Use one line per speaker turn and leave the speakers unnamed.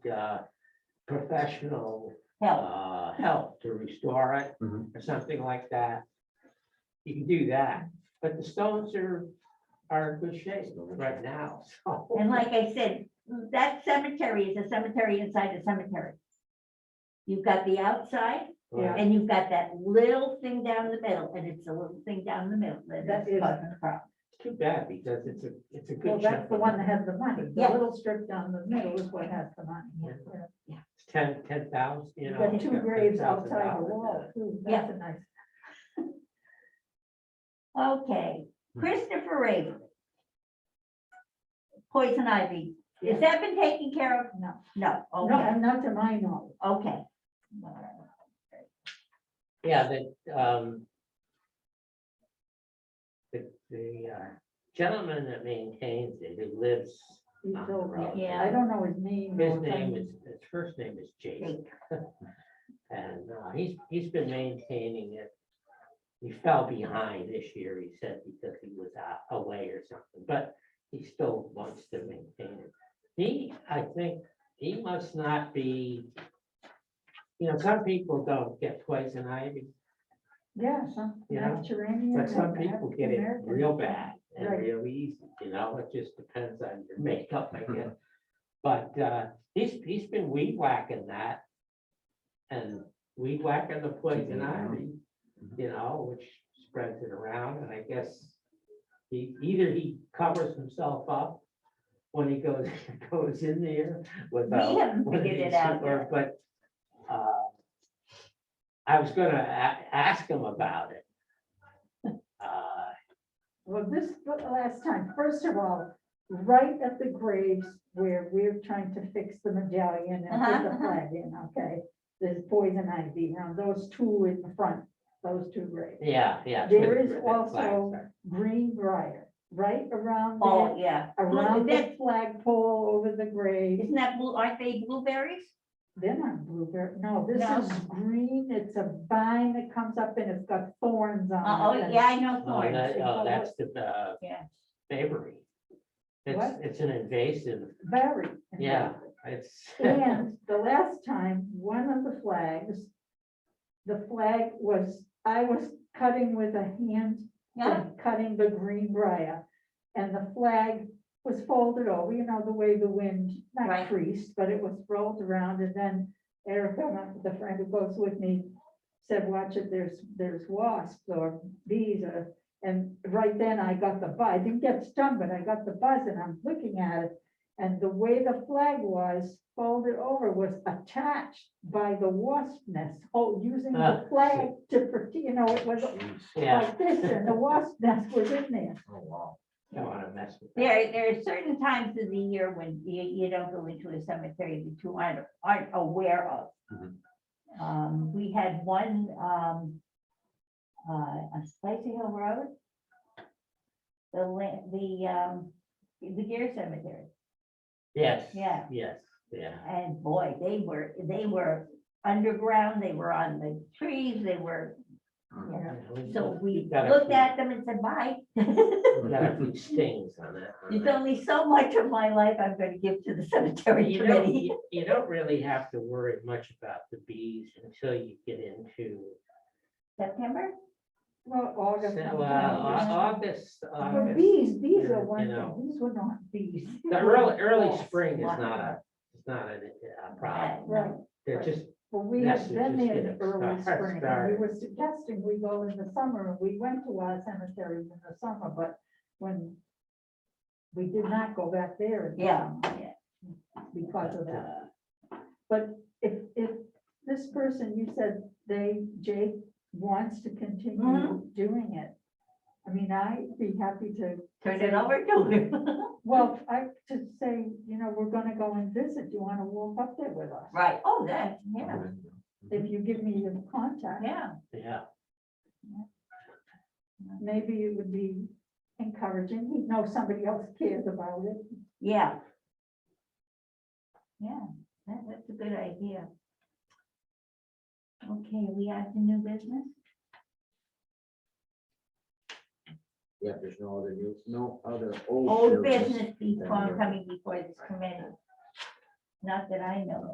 uh, professional,
help.
uh, help to restore it
Mhm.
or something like that. You can do that, but the stones are, are in good shape right now, so.
And like I said, that cemetery is a cemetery inside a cemetery. You've got the outside
Yeah.
and you've got that little thing down the middle and it's a little thing down the middle that
That
is
is-
causing the problem.
It's Too bad because it's a, it's a
Well,
good.
that's the
chunk.
one that has the money. The
Yeah.
little strip down the middle is what has the money.
Yeah.
Yeah.
It's Ten, ten thousand, you
You've
know.
got two
ten
graves
thousand
outside the
dollars.
wall. too.
Yeah.
That's a nice.
Okay, Christopher Raven. Poison ivy,
Yeah.
has that been taken care of?
No.
No,
Oh,
No,
okay,
and not to my knowledge.
okay.
Yeah, that, um. The, the uh, gentleman that maintains it, who lives,
He's
Ah,
so-
right.
Yeah.
I don't know his name. uh,
his
or
name
something.
is, his first name is Jake. And uh, he's, he's been maintaining it. He fell behind this year, he said, because he was out- away or something, but he still wants to maintain it. He, I think, he must not be, you know, some people don't get poison ivy,
Yeah, some
You know,
Mediterranean.
but some
and
people get it
African-American.
real bad and
Right.
real easy, you know, it just depends on your makeup, I guess. But uh, he's, he's been weed whacking that. And weed whacking the
Keeping
poison
it
ivy,
around.
you know, which spreads it around, and I guess. He, either he covers himself up when he goes, goes in there
We
without.
haven't
Well,
figured it
it's
out
super,
yet.
But uh, I was gonna a- ask him about it. Uh,
Well, this, the last time, first of all, right at the graves where we're trying to fix the medallion and
Uh-huh,
put
uh-huh.
the flag in, okay? There's poison ivy around those two in the front, those two graves.
Yeah, yeah. it's
There
with-
is
with the
also-
flags there.
Green briar, right around
Oh,
there,
yeah,
around the
that-
flagpole over the grave.
isn't that, blue? aren't they blueberries?
They're not blueberry, no, this
No.
is green, it's a vine that comes up and it's got thorns
Oh,
on it.
oh,
and-
yeah, I know
Oh,
thorns.
that- oh, that's the uh,
Yeah.
Bavery. It's,
What?
it's an invasive,
Very.
Yeah. it's,
And the last time, one of the flags, the flag was, I was cutting with a hand,
Yeah,
cutting the green briar. And the flag was folded over, you know, the way the wind,
Right.
not creased, but it was rolled around and then Erica, my- the friend who goes with me, said, watch it, there's, there's wasps or bees or, and right then I got the buzz, I didn't get stung, but I got the buzz and I'm looking at it. And the way the flag was folded over was attached by the wasp nest, oh, using
Ah.
the flag to, prote- you know, it was
Jeez.
yeah,
like this, and the wasp nest was in there.
Oh, wow.
don't wanna mess with that.
there, there are certain times of the year when you, you don't go into a cemetery that you aren't, aren't aware of.
Mhm.
Mm-hmm.
Um, we had one, um, uh, on Spicy Hill Road. The land, the, um, the Gear Cemetery,
Yes.
Yeah.
Yes, yeah.
and boy, they were, they were underground, they were on the trees, they were,
Mm.
Yeah.
Yeah, we-
so we
we've got a
looked
few-
at them and said, bye.
we've Got a few stings on that. one.
There's only so much of my life I'm gonna give to the cemetery
You don't,
committee.
you you don't really have to worry much about the bees until you get into
September?
Well,
So,
August.
uh,
September.
Au- August,
But
August,
bees, bees
you
are one
know.
thing, these were not bees.
the early, early
Yes,
spring is
why?
not a, it's not a, a problem.
Right,
Right,
They're just,
but we
Yes,
had
you
been
just
there in
get it
early
start-
spring, and we
started.
were suggesting we go in the summer, and we went to our cemeteries in the summer, but when we did not go back there. in the
Yeah,
summer
yeah.
Because of that,
uh,
but if, if this person, you said they, Jake, wants to continue
Mhm.
doing it, I mean, I'd be happy to
Turn it over to him.
Well, I to say, you know, we're gonna go and visit, you wanna walk up there with us?
Right, oh, that, yeah,
If you give me your contact,
yeah.
yeah,
maybe it would be encouraging, he'd know somebody else cares about it.
Yeah. Yeah, that- that's a good idea. Okay, we have the new business?
Yeah, there's no other news, no other old.
Old
business.
business before coming before this committee. not that I know of.